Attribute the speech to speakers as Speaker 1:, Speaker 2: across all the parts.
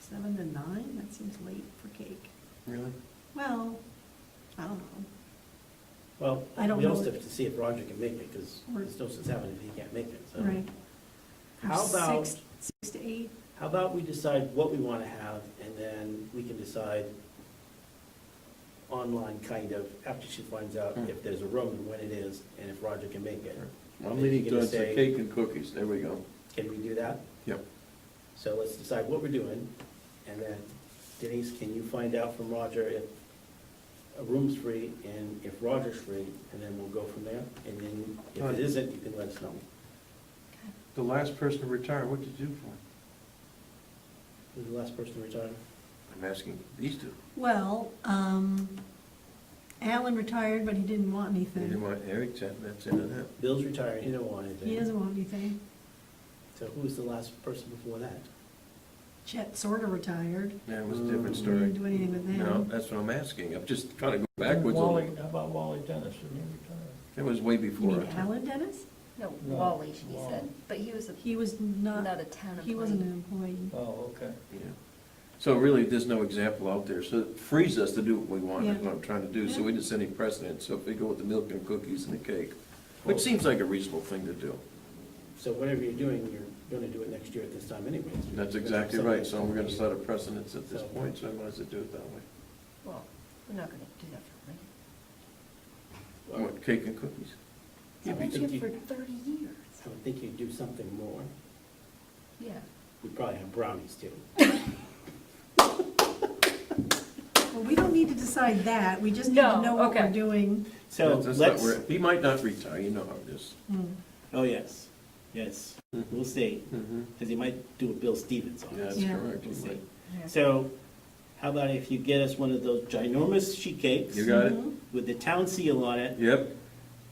Speaker 1: seven to nine, that seems late for cake.
Speaker 2: Really?
Speaker 1: Well, I don't know.
Speaker 2: Well,
Speaker 1: I don't
Speaker 2: we also
Speaker 1: know.
Speaker 2: have to see if Roger can make it, because
Speaker 1: Or-
Speaker 2: there's no sense having it if he can't make it,
Speaker 3: Oh.
Speaker 2: so.
Speaker 1: Right.
Speaker 2: How
Speaker 1: Six-
Speaker 2: about-
Speaker 1: Six to eight,
Speaker 2: How about we decide what we want to have, and then we can decide online, kind of, after she finds out if there's a room and when it is, and if Roger can make it.
Speaker 3: I'm leaning
Speaker 2: You're gonna
Speaker 3: towards the
Speaker 2: say-
Speaker 3: cake and cookies, there we go.
Speaker 2: Can we do that?
Speaker 3: Yep.
Speaker 2: So let's decide what we're doing, and then Denise, can you find out from Roger if a room's free and if Roger's free, and then we'll go from there? And then if it isn't, you can let us know.
Speaker 3: The last person to retire, what did you do for?
Speaker 2: Who's the last person to retire?
Speaker 3: I'm asking these two.
Speaker 1: well, um, Alan retired, but he didn't want
Speaker 3: You didn't
Speaker 1: anything.
Speaker 3: want Eric to, that's into that.
Speaker 2: Bill's retiring, he don't want anything.
Speaker 1: He doesn't want anything.
Speaker 2: So who was the last person before that?
Speaker 1: Chet sort of retired.
Speaker 3: That was a different
Speaker 1: We
Speaker 3: story.
Speaker 1: Didn't do anything with
Speaker 3: No,
Speaker 1: him.
Speaker 3: that's what I'm asking, I'm just trying to go backwards a
Speaker 4: Wally,
Speaker 3: little.
Speaker 4: how about Wally Dennis, didn't he retire?
Speaker 3: It was way
Speaker 1: You
Speaker 3: before.
Speaker 1: mean
Speaker 3: our time.
Speaker 1: Alan Dennis?
Speaker 5: No,
Speaker 4: No,
Speaker 5: Wally, she
Speaker 4: Wally.
Speaker 5: said, but he was a,
Speaker 1: He was not,
Speaker 5: not a town employee.
Speaker 1: he wasn't an employee.
Speaker 4: Oh, okay.
Speaker 3: Yeah. So really, there's no example out there, so it frees us to do what we want, is what I'm trying to do, so we didn't set any precedent. So if we go with the milk and cookies and the cake, which seems like a reasonable thing to do.
Speaker 2: So whatever you're doing, you're gonna do it next year at this time anyways.
Speaker 3: That's exactly right, so we're gonna set a precedence at this point, so I might as well do it that way.
Speaker 5: Well, we're not gonna do that for
Speaker 3: I want cake and cookies.
Speaker 2: Yeah,
Speaker 5: him,
Speaker 2: but
Speaker 5: right? He's been
Speaker 2: you-
Speaker 5: here for thirty years,
Speaker 2: I would think you'd do something more.
Speaker 5: yeah.
Speaker 2: We'd probably have brownies too.
Speaker 3: Oh.
Speaker 1: Well, we don't need to decide that, we just need to
Speaker 5: No,
Speaker 1: know what we're
Speaker 5: okay.
Speaker 1: doing.
Speaker 2: So
Speaker 3: That's- that's not
Speaker 2: let's,
Speaker 3: where- He might not retire, you know how it is.
Speaker 1: Hmm.
Speaker 2: oh, yes, yes, we'll see,
Speaker 3: Mhm.
Speaker 2: because he might do a Bill Stevens on
Speaker 3: Yeah,
Speaker 2: us.
Speaker 3: that's
Speaker 1: Yeah.
Speaker 3: correct.
Speaker 2: We'll
Speaker 3: he
Speaker 2: see.
Speaker 3: might.
Speaker 5: Yeah.
Speaker 2: So how about if you get us one of those ginormous sheet cakes
Speaker 3: You got it?
Speaker 1: Mhm.
Speaker 2: with the town seal on it,
Speaker 3: Yep,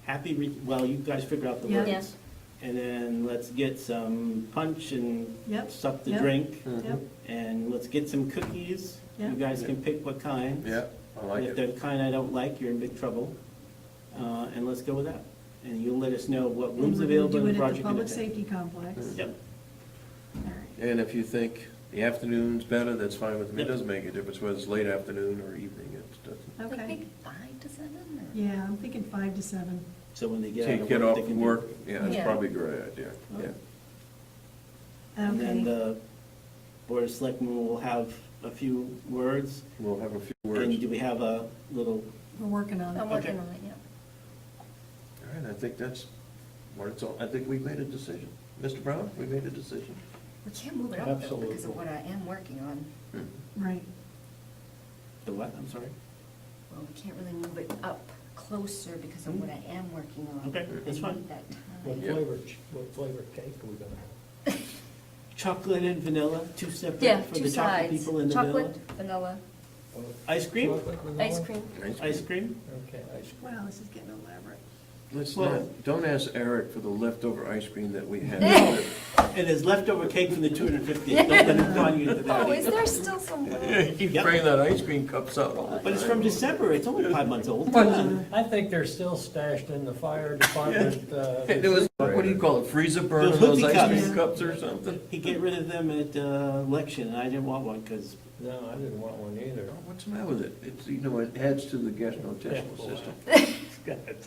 Speaker 2: happy, re- well, you guys figure out the
Speaker 1: Yeah.
Speaker 2: words.
Speaker 5: Yes.
Speaker 2: And then let's get some punch and
Speaker 1: Yep,
Speaker 2: suck the
Speaker 1: yep.
Speaker 2: drink.
Speaker 3: Hmm.
Speaker 1: Yep,
Speaker 2: And let's get some cookies. You
Speaker 1: Yeah.
Speaker 2: guys can pick what kind.
Speaker 3: yeah, I like
Speaker 2: If they're
Speaker 3: it.
Speaker 2: the kind I don't like, you're in big trouble. Uh, And let's go with that. And you'll let us know what rooms
Speaker 1: And we're gonna
Speaker 2: available and the project.
Speaker 1: Do it at the public
Speaker 2: and everything.
Speaker 1: safety complex.
Speaker 2: Yep.
Speaker 1: All right.
Speaker 3: And if you think the afternoon's better, that's fine with me, it
Speaker 2: Yep.
Speaker 3: doesn't make a difference whether it's late afternoon or evening, it doesn't.
Speaker 5: Like
Speaker 1: Okay,
Speaker 5: maybe five to seven or?
Speaker 1: yeah, I'm thinking five to seven.
Speaker 2: So when they get out
Speaker 3: Take
Speaker 2: of work.
Speaker 3: it
Speaker 2: they
Speaker 3: off
Speaker 2: can do-
Speaker 3: work, yeah, that's
Speaker 5: Yeah.
Speaker 3: probably a great idea, yeah.
Speaker 2: Okay. And then
Speaker 1: Okay,
Speaker 2: the Board of Selectmen will have a few words.
Speaker 3: We'll have a few words.
Speaker 2: And do we have a little,
Speaker 1: we're working on
Speaker 5: I'm
Speaker 1: it.
Speaker 5: working
Speaker 2: Okay.
Speaker 5: on it, yeah.
Speaker 3: All right, I think that's what it's all, I think we've made a decision. Mr. Brown, we made a decision.
Speaker 5: We can't move it up though, because
Speaker 2: Absolutely.
Speaker 5: of what I am working on,
Speaker 1: Right,
Speaker 2: the what, I'm sorry?
Speaker 5: well, we can't really move it up closer because of what I am working on.
Speaker 2: Okay, that's
Speaker 5: I need
Speaker 2: fine.
Speaker 5: That
Speaker 4: What
Speaker 5: time.
Speaker 3: Yeah.
Speaker 4: flavor, ch- what flavor cake are we gonna have?
Speaker 2: Chocolate and vanilla, two
Speaker 5: Yeah,
Speaker 2: separate for
Speaker 5: two
Speaker 2: the chocolate
Speaker 5: sides,
Speaker 2: people and the vanilla?
Speaker 5: chocolate, vanilla,
Speaker 4: Well,
Speaker 2: Ice cream?
Speaker 4: chocolate vanilla?
Speaker 5: ice cream.
Speaker 2: Ice cream?
Speaker 4: Okay, ice cream.
Speaker 1: wow, this is getting elaborate.
Speaker 3: Let's
Speaker 2: Well-
Speaker 3: not, don't ask Eric for the leftover ice cream that we had.
Speaker 2: And there's leftover cake from the 250. Don't let it con you to that.
Speaker 5: Oh, is
Speaker 2: either.
Speaker 5: there still some?
Speaker 3: You keep bringing that ice cream cups out all the time.
Speaker 2: But it's from December, it's only five months old.
Speaker 4: I think they're still stashed in the fire department, uh.
Speaker 3: It was, what do you call it, freezer burn
Speaker 2: Those
Speaker 3: on those
Speaker 2: hooky
Speaker 3: ice cream
Speaker 1: cups.
Speaker 3: cups or something?
Speaker 2: He get rid of them at uh, election, and I didn't want one, because
Speaker 4: No, I didn't want one either.
Speaker 3: Oh, What's the matter with it? It's, you know, it adds to the gastrointestinal
Speaker 4: Yeah.
Speaker 3: system.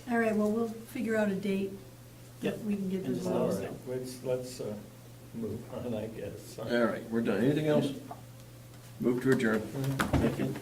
Speaker 1: All right, well, we'll figure out a date.
Speaker 2: Yep.
Speaker 1: We can get
Speaker 2: And
Speaker 1: this
Speaker 2: just let
Speaker 4: All
Speaker 1: all.
Speaker 2: us
Speaker 4: right, let's, let's, uh, move on, I guess. Mm-hmm.
Speaker 3: All right, we're done. Anything else? Move to adjourn.
Speaker 2: I can